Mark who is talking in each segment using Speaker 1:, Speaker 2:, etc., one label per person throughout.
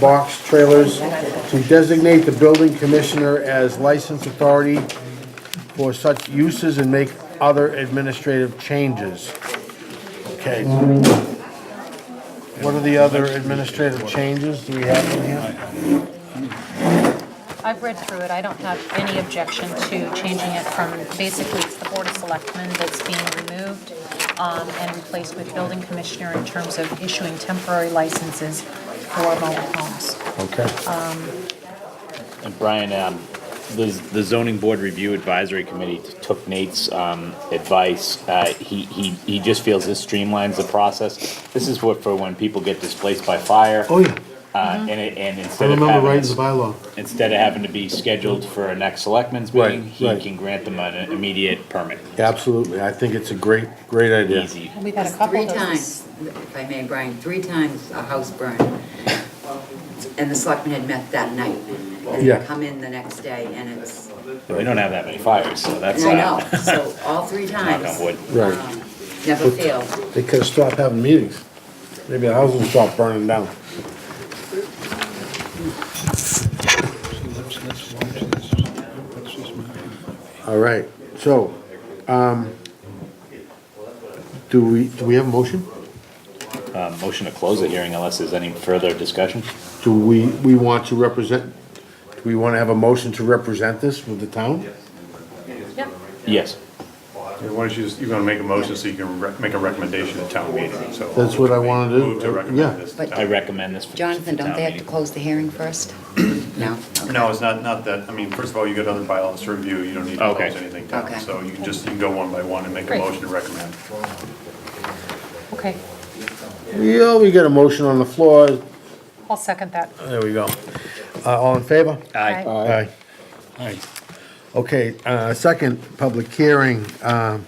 Speaker 1: box trailers to designate the building commissioner as licensed authority for such uses and make other administrative changes. Okay. What are the other administrative changes do we have in here?
Speaker 2: I've read through it, I don't have any objection to changing it from, basically, it's the Board of Selectmen that's being removed um, and replaced with Building Commissioner in terms of issuing temporary licenses for mobile homes.
Speaker 1: Okay.
Speaker 3: And Brian, um, the, the zoning board review advisory committee t- took Nate's, um, advice. Uh, he, he, he just feels this streamlines the process. This is what, for when people get displaced by fire.
Speaker 1: Oh, yeah.
Speaker 4: Mm-hmm.
Speaker 3: Uh, and it, and
Speaker 1: I
Speaker 3: instead of
Speaker 1: remember writing the
Speaker 3: having,
Speaker 1: bylaw.
Speaker 3: instead of having to be scheduled for a next selectmen's
Speaker 1: Right,
Speaker 3: meeting, he
Speaker 1: right.
Speaker 3: can grant them an immediate permit.
Speaker 1: Absolutely. I think it's a great, great idea.
Speaker 3: Easy.
Speaker 2: We've had a couple
Speaker 4: Three
Speaker 2: of those.
Speaker 4: times, if I may, Brian, three times a house burned. And the selectmen had met that night. And
Speaker 1: Yeah.
Speaker 4: they come in the next day and it's,
Speaker 3: We don't have that many fires, so that's.
Speaker 4: I
Speaker 3: uh,
Speaker 4: know, so all three times.
Speaker 3: on wood.
Speaker 1: Right.
Speaker 4: um, Never failed.
Speaker 1: They could have stopped having meetings. Maybe the house will stop burning down. All right, so, um, do we, do we have a motion?
Speaker 3: Uh, motion to close the hearing unless there's any further discussion.
Speaker 1: Do we, we want to represent, do we want to have a motion to represent this with the town?
Speaker 2: Yep.
Speaker 3: Yes.
Speaker 5: Yeah, Why don't you just, you're gonna make a motion so you can rec- make a recommendation at town meeting, so.
Speaker 1: That's what I wanna do.
Speaker 5: Move to
Speaker 1: Yeah.
Speaker 5: recommend this. to
Speaker 4: But-
Speaker 3: I
Speaker 5: town.
Speaker 3: recommend this. for-
Speaker 4: Jonathan,
Speaker 3: for
Speaker 4: don't
Speaker 3: town
Speaker 4: they have to
Speaker 3: meeting.
Speaker 4: close the hearing first? No?
Speaker 5: No, it's not, not that, I mean, first of all, you got other bylaws to review, you don't need to
Speaker 3: Okay.
Speaker 5: close anything down.
Speaker 4: Okay.
Speaker 5: So you can just, you can go one by one and make a
Speaker 2: Great.
Speaker 5: motion to recommend.
Speaker 2: Okay,
Speaker 1: Yeah, we got a motion on the floor,
Speaker 2: I'll second that.
Speaker 1: there we go. Uh, all in favor?
Speaker 2: Aye.
Speaker 1: Aye. Aye. Okay, uh, second public hearing, um,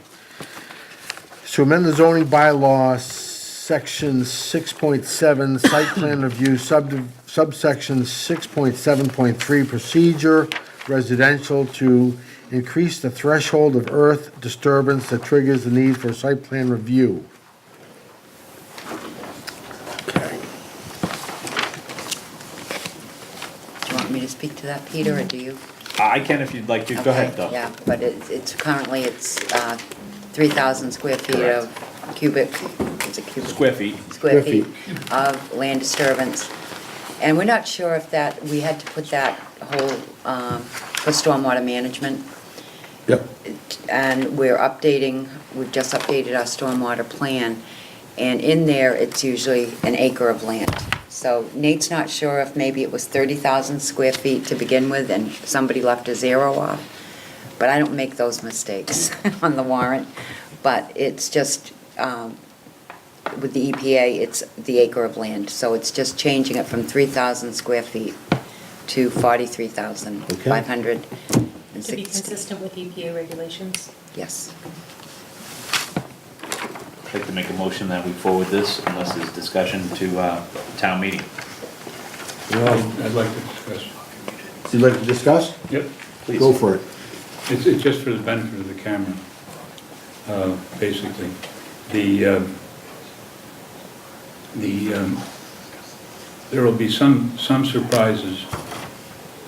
Speaker 1: to amend the zoning bylaw, section six point seven, site plan review, sub, subsection six point seven point three, procedure residential to increase the threshold of earth disturbance that triggers the need for site plan review. Okay.
Speaker 4: Do you want me to speak to that, Peter, or do you?
Speaker 3: I can if you'd like to. Go ahead,
Speaker 4: Okay,
Speaker 3: though.
Speaker 4: Yeah, but it's, it's currently, it's, uh, three thousand square feet of cubic, is it cubic?
Speaker 3: Square feet.
Speaker 4: square
Speaker 1: Square
Speaker 4: feet of land disturbance. And we're not sure if that, we had to put that whole, um, for stormwater management.
Speaker 1: Yep.
Speaker 4: And we're updating, we've just updated our stormwater plan. And in there, it's usually an acre of land. So Nate's not sure if maybe it was thirty thousand square feet to begin with and somebody left a zero off. But I don't make those mistakes on the warrant. But it's just, um, with the EPA, it's the acre of land, so it's just changing it from 3,000 square feet to 43,560.
Speaker 2: with EPA regulations.
Speaker 4: Yes.
Speaker 3: I'd like to make a motion that we forward this unless there's discussion to uh, town meeting.
Speaker 6: Um, I'd like to discuss.
Speaker 1: You'd like to discuss?
Speaker 6: Yep,
Speaker 3: Please.
Speaker 1: Go for it.
Speaker 6: it's, it's just for the benefit of the camera, uh, basically. The, um, the, um, there will be some, some surprises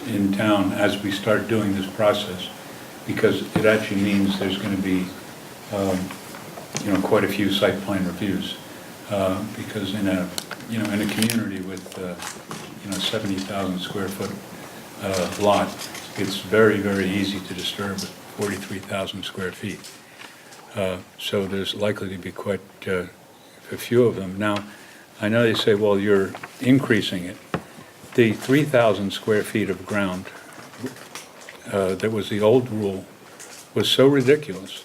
Speaker 6: in town as we start doing this process, because it actually means there's going to be, um, you know, quite a few site plan reviews, uh, because in a, you know, in a community with, uh, you know, 70,000 square foot uh, lot, it's very, very easy to disturb 43,000 square feet. Uh, So there's likely to be quite uh, a few of them. Now, I know they say, well, you're increasing it. The 3,000 square feet of ground uh, that was the old rule was so ridiculous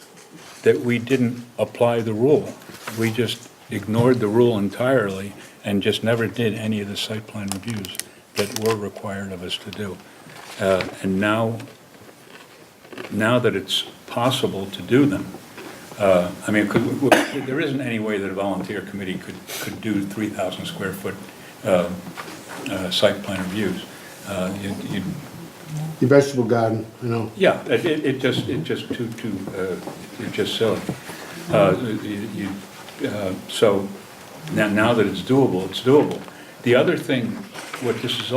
Speaker 6: that we didn't apply the rule. We just ignored the rule entirely and just never did any of the site plan reviews that were required of us to do. Uh, And now, now that it's possible to do them, uh, I mean, could, w- w- there isn't any way that a volunteer committee could, could do 3,000 square foot uh, uh, site plan reviews. Uh, you'd- you'd
Speaker 1: Your vegetable garden, you know.
Speaker 6: yeah, it, it it just, it just too, too, uh, it's just silly. Uh, you- you, uh, So now, now that it's doable, it's doable. The other thing, what this is